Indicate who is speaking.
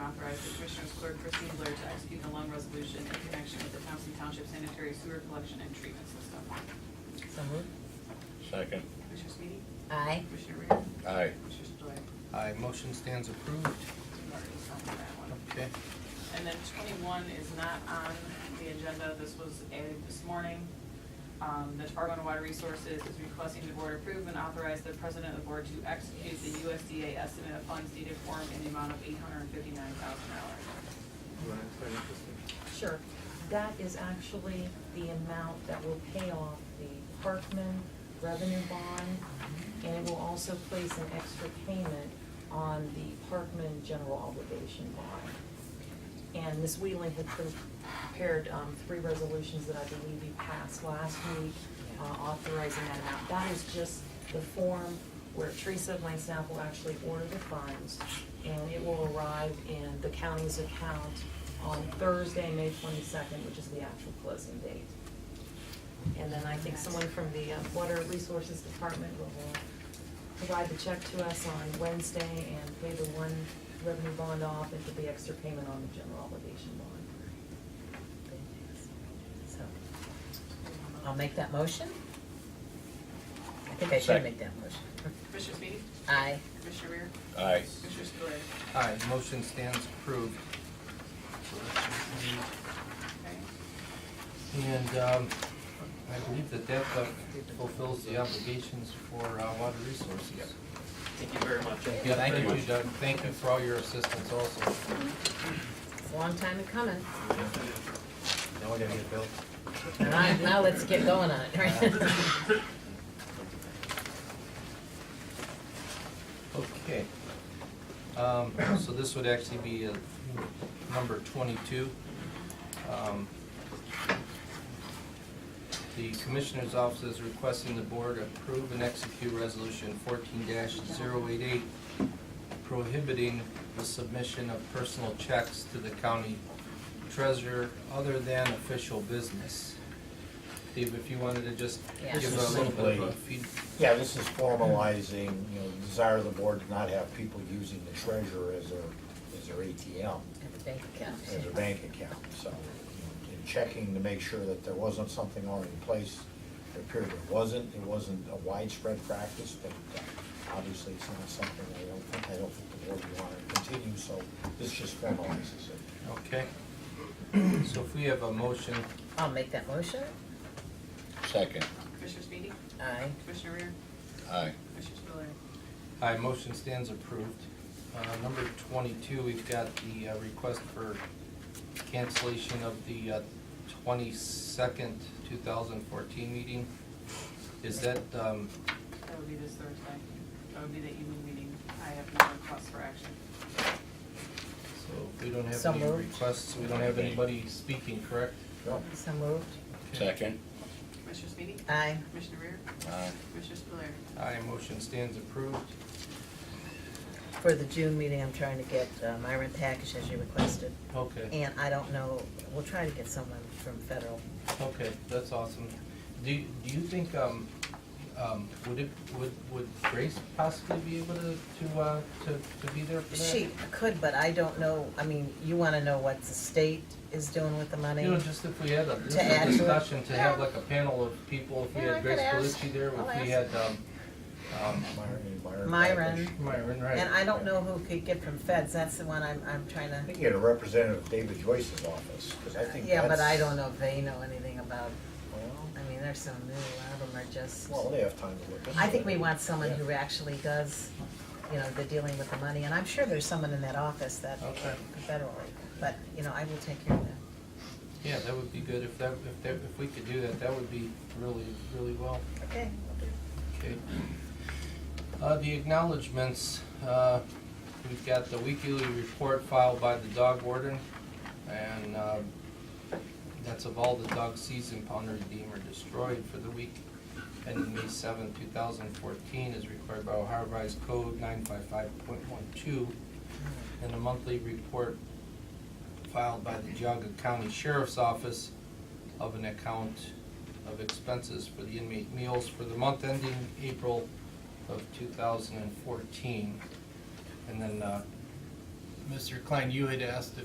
Speaker 1: authorize the Commissioners Clerk Christine Blair to execute the loan resolution in connection with the Thompson Township Sanitary Sewer Collection and Treatment System.
Speaker 2: So moved.
Speaker 3: Second.
Speaker 1: Commissioner Sweetie?
Speaker 2: Aye.
Speaker 1: Commissioner Rea?
Speaker 3: Aye.
Speaker 1: Commissioner Stoy?
Speaker 4: Aye, motion stands approved.
Speaker 1: We've already signed that one.
Speaker 4: Okay.
Speaker 1: And then twenty-one is not on the agenda, this was added this morning. Um, the Department of Water Resources is requesting the board approve and authorize the president of the board to execute the USDA estimate of funds needed for him in the amount of eight hundred and fifty-nine thousand dollars.
Speaker 5: You wanna explain it, Kristen?
Speaker 2: Sure. That is actually the amount that will pay off the Parkman revenue bond, and it will also place an extra payment on the Parkman general obligation bond. And Ms. Wheeling had prepared um, three resolutions that I believe you passed last week uh, authorizing that amount. That is just the form where Teresa of Lane Staff will actually order the funds, and it will arrive in the county's account on Thursday, May twenty-second, which is the actual closing date. And then I think someone from the uh, Water Resources Department will uh, provide the check to us on Wednesday and pay the one revenue bond off and put the extra payment on the general obligation bond.
Speaker 6: So, I'll make that motion. I think I should
Speaker 3: Second.
Speaker 6: make that motion.
Speaker 1: Commissioner Sweetie?
Speaker 6: Aye.
Speaker 1: Commissioner Rea?
Speaker 3: Aye.
Speaker 1: Commissioner Stoy?
Speaker 4: Aye, motion stands approved.
Speaker 1: Okay.
Speaker 4: And um, I believe that that uh, fulfills the obligations for uh, water resources.
Speaker 5: Thank you very much.
Speaker 4: Yeah, thank you, Doug. Thank you for all your assistance also.
Speaker 6: It's a long time in coming.
Speaker 4: Now we gotta get built.
Speaker 6: All right, now let's get going on it, right?
Speaker 4: Okay. Um, So this would actually be uh, number 22. Um, The Commissioner's Office is requesting the Board approve and execute Resolution 14-088 prohibiting the submission of personal checks to the county treasurer other than official business. Steve, if you wanted to just
Speaker 6: Yeah.
Speaker 4: give
Speaker 7: This
Speaker 4: a
Speaker 7: is
Speaker 4: little bit of a
Speaker 7: simply-
Speaker 4: feed-
Speaker 7: Yeah, this is formalizing, you know, the desire of the board to not have people using the treasurer as their, as their ATM,
Speaker 6: At the bank account.
Speaker 7: as their bank account, so. you know, And checking to make sure that there wasn't something already in place, it appeared there wasn't, it wasn't a widespread practice, but uh, obviously it's not something I don't think, I don't think the board would want to continue, so this just formalizes it.
Speaker 4: Okay. So if we have a motion,
Speaker 6: I'll make that motion.
Speaker 3: Second.
Speaker 1: Commissioner Sweetie?
Speaker 6: Aye.
Speaker 1: Commissioner Rea?
Speaker 3: Aye.
Speaker 1: Commissioner Stoy?
Speaker 4: aye, motion stands approved. Uh, Number 22, we've got the uh, request for cancellation of the uh, 22nd, 2014 meeting. Is that, um,
Speaker 1: That would be this Thursday. That would be the evening meeting. I have no request for action.
Speaker 4: so we don't have
Speaker 6: So
Speaker 4: any
Speaker 6: moved.
Speaker 4: requests, we don't have anybody speaking, correct?
Speaker 7: Sure.
Speaker 6: So moved.
Speaker 3: Second.
Speaker 1: Commissioner Sweetie?
Speaker 6: Aye.
Speaker 1: Commissioner Rea?
Speaker 3: Aye.
Speaker 1: Commissioner Stoy?
Speaker 4: Aye, motion stands approved.
Speaker 6: For the June meeting, I'm trying to get uh, my rent package as you requested.
Speaker 4: Okay,
Speaker 6: And I don't know, we'll try to get someone from federal.
Speaker 4: okay, that's awesome. Do do you think, um, um, would it, would would Grace possibly be able to, to uh, to to be there for that?
Speaker 6: She could, but I don't know, I mean, you want to know what the state is doing with the money?
Speaker 4: You know, just if we had a just
Speaker 6: To add
Speaker 4: a
Speaker 6: to it?
Speaker 4: discussion, to have like a panel of people, if we
Speaker 6: Yeah, I
Speaker 4: had Grace
Speaker 6: could ask.
Speaker 4: Belucci there,
Speaker 6: I'll
Speaker 4: if we had,
Speaker 6: ask.
Speaker 4: um, um,
Speaker 7: Myron, Myron.
Speaker 6: Myron.
Speaker 4: Myron,
Speaker 6: And
Speaker 4: right?
Speaker 6: I don't know who could get from feds, that's the one I'm, I'm trying
Speaker 7: I
Speaker 6: to,
Speaker 7: think you had a representative of David Joyce's office, because I think
Speaker 6: yeah, but I
Speaker 7: that's-
Speaker 6: don't know if they know anything about,
Speaker 7: Well,
Speaker 6: I mean, they're so new, a lot of them are just.
Speaker 7: Well, they have time to look. into
Speaker 6: I think
Speaker 7: it.
Speaker 6: we want someone
Speaker 7: Yeah.
Speaker 6: who actually does, you know, the dealing with the money, and I'm sure there's someone in that office that,
Speaker 4: Okay.
Speaker 6: federally, but, you know, I will take care of that.
Speaker 4: Yeah, that would be good, if that, if that, if we could do that, that would be really, really well.
Speaker 6: Okay.
Speaker 4: Okay. Uh, the acknowledgements, uh, we've got the weekly report filed by the dog warden, and, um, that's of all the dogs seized and pound redeemed or destroyed for the week ending May seventh, two thousand fourteen, as required by Ohio Revised Code nine five five point one two, and a monthly report filed by the Geauga County Sheriff's Office of an account of expenses for the inmate meals for the month ending April of 2014. And then uh, Mr. Klein, you had asked